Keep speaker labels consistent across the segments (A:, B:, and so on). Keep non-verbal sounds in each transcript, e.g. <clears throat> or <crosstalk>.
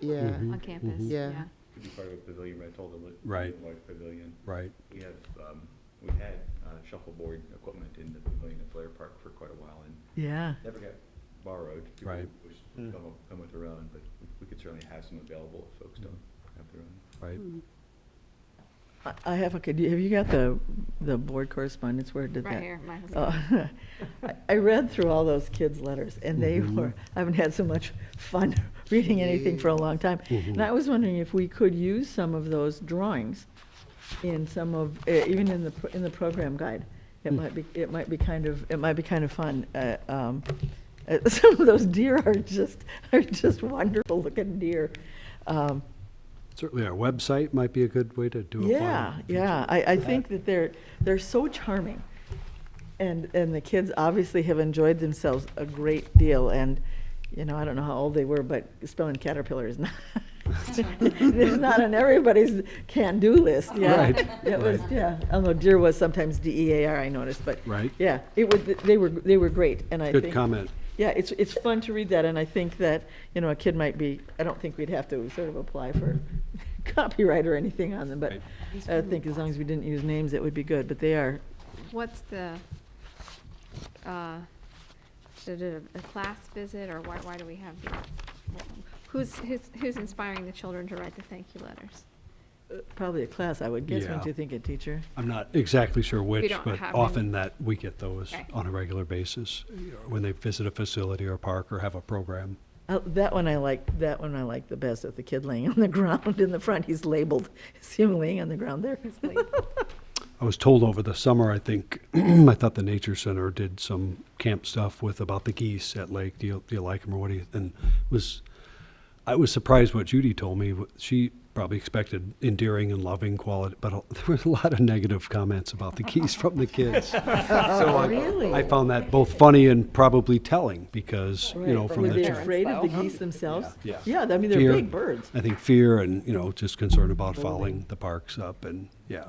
A: yeah,
B: on campus,
C: Mm-hmm.
D: mhm.
A: Yeah.
B: yeah.
E: Could be part of a pavilion, but I told them. it-
D: Right.
E: Like pavilion.
D: right?
E: We have, um, we had uh, shuffleboard equipment in the pavilion at Blair Park for quite a while and
C: Yeah.
E: never got borrowed. People
D: Right.
E: would Come, up- come with their own, but we could certainly have some available if folks don't have their own.
D: Right.
C: I- I have a, could you- have you got the, the board correspondence? Where did that?
B: Right here, my husband.
C: Oh, <laughs> I- I read through all those kids' letters, and they
D: Mhm.
C: were, I haven't had so much fun <laughs> reading anything for a long time. And I
D: Mhm.
C: was wondering if we could use some of those drawings in some of, eh, even in the, pro- in the program guide. It
D: Hmm.
C: might be, it might be kind of, it might be kind of fun. eh, um, eh, <laughs> Some of those deer are just, are just wonderful looking deer. Um,
D: Certainly, our website might be a good way to do a.
C: yeah,
D: fine-
C: yeah. I, I think that they're they're so charming, and and the kids obviously have enjoyed themselves a great deal. And you know, I don't know how old they were, but spelling caterpillar is not <laughs> it's not on everybody's can-do list. Yeah,
D: Right,
C: it was.
D: right.
C: Yeah, although deer was sometimes D E A R. I noticed, but
D: Right.
C: Yeah, it was. They were they were great, and I
D: Good
C: think
D: comment.
C: yeah, it's, it's fun to read that, and I think that, you know, a kid might be, I don't think we'd have to sort of apply for <laughs> copyright or anything on them, but
D: Right.
C: I think as long as we didn't use names, it would be good, but they are,
B: What's the, uh, is it a a class visit, or why, why do we have these? Who's, who's, who's inspiring the children to write the thank you letters?
C: uh, probably a class, I would guess,
D: Yeah.
C: wouldn't you think, a teacher?
D: I'm not exactly sure which,
B: don't
D: but
B: have any.
D: often that we get those
B: Okay.
D: on a regular basis, you know, when they visit a facility or park or have a program.
C: Uh, That one I like, that one I like the best, of the kid laying <laughs> on the ground in the front, he's labeled, <laughs> see him laying on the ground there?
B: Who's lead?
D: I was told over the summer, I think, <clears throat> I thought the Nature Center did some camp stuff with about the geese at Lake. Do you, do you like them or what do you, and was, I was surprised what Judy told me. Wh- She probably expected endearing and loving quality, but a- <laughs> there was a lot of negative comments about the geese from the kids. so
C: Uh,
D: I,
C: Really?
D: I found that both funny and probably telling because, you know,
C: Right,
D: from
C: were
D: the.
C: they
D: chil-
C: afraid of the geese themselves?
D: Yeah,
C: Yeah, I mean, they're
D: Fear.
C: big birds.
D: I think fear and, you know, just concern about fouling the parks up and, yeah.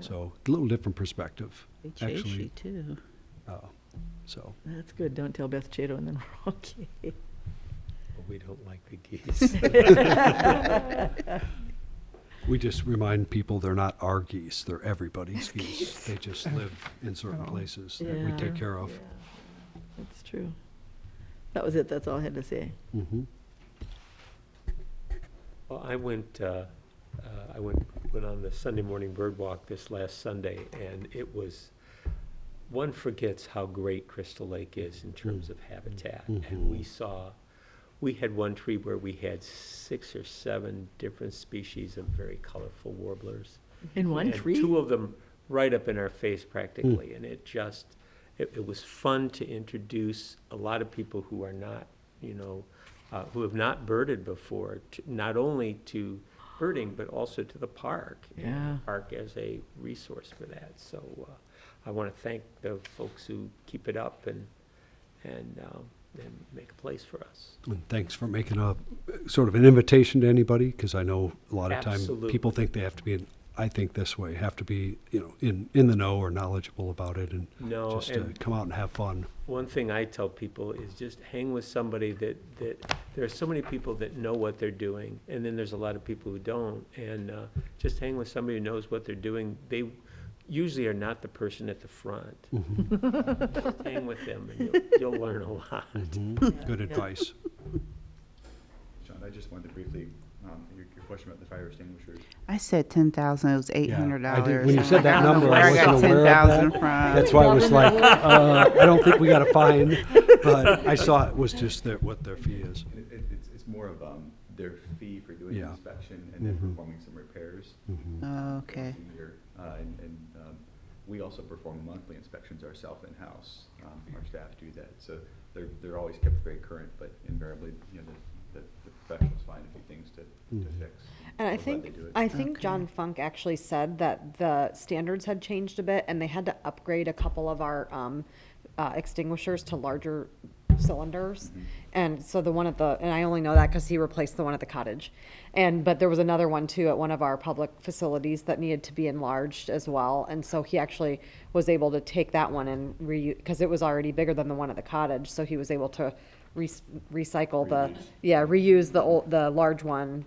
D: So a little different perspective,
F: They chase you
D: actually.
F: too.
D: Uh, So,
C: That's good, don't tell Beth Chato and then we're okay.
G: We don't like
C: <laughs>
G: the geese.
D: we just remind people they're not our geese, they're everybody's geese. They just live in certain places that we
C: Yeah.
D: take care of.
C: That's true. That was it, that's all I had to say.
D: Mhm.
G: Well, I went, uh, uh, I went, went on the Sunday morning bird walk this last Sunday, and it was, one forgets how great Crystal Lake is in terms of habitat. And we saw, we had one tree where we had six or seven different species of very colorful warblers.
C: In one
G: and
C: tree?
G: Two of them right up in our face practically, and it just, it, it was fun to introduce a lot of people who are not, you know, uh, who have not birded before, to, not only to birding, but also to the park. and the
C: Yeah.
G: Park as a resource for that, so, uh, I wanna thank the folks who keep it up and, and, um, and make a place for us.
D: And thanks for making a, sort of an invitation to anybody, because I know a lot of time, people
G: Absolutely.
D: think they have to be, in- I think this way, have to be, you know, in, in the know or knowledgeable about it and
G: No,
D: just uh,
G: and-
D: come out and have fun.
G: One thing I tell people is just hang with somebody that, that, there are so many people that know what they're doing, and then there's a lot of people who don't. And, uh, just hang with somebody who knows what they're doing. They usually are not the person at the front. Hang with them and you'll, you'll learn a lot.
D: Mm-hmm.
G: Mm-hmm.
D: Good advice.
E: John, I just wanted to briefly, um, your, your question about the fire extinguishers.
F: I said ten thousand, it was eight hundred
D: I did-
F: dollars.
D: when you said that number, I wasn't aware of
F: I got ten thousand
D: that.
F: from.
D: That's why I was like, uh, I don't think we got a fine, but I saw it was just their, what their fee is.
E: It, it, it's, it's more of, um, their fee for doing the
D: Yeah.
E: inspection and then
D: Mhm.
E: performing some repairs.
D: Mm-hmm.
F: Oh, Okay,
E: once a year. Uh, And, and um, we also perform monthly inspections ourselves in-house. Um, Our staff do that, so they're, they're always kept very current, but invariably, you know, the, the- the professionals find a few things to, to fix.
H: And I
E: We're glad they
H: think,
E: do it.
H: I think John Funk actually said that the standards had changed a bit and they had to upgrade a couple of our um, uh, extinguishers to larger cylinders.
E: Mm-hmm.
H: And so the one at the, and I only know that because he replaced the one at the cottage. And, but there was another one too at one of our public facilities that needed to be enlarged as well. And so he actually was able to take that one and re, because it was already bigger than the one at the cottage. So he was able to re- recycle the, yeah, reuse the old, the large one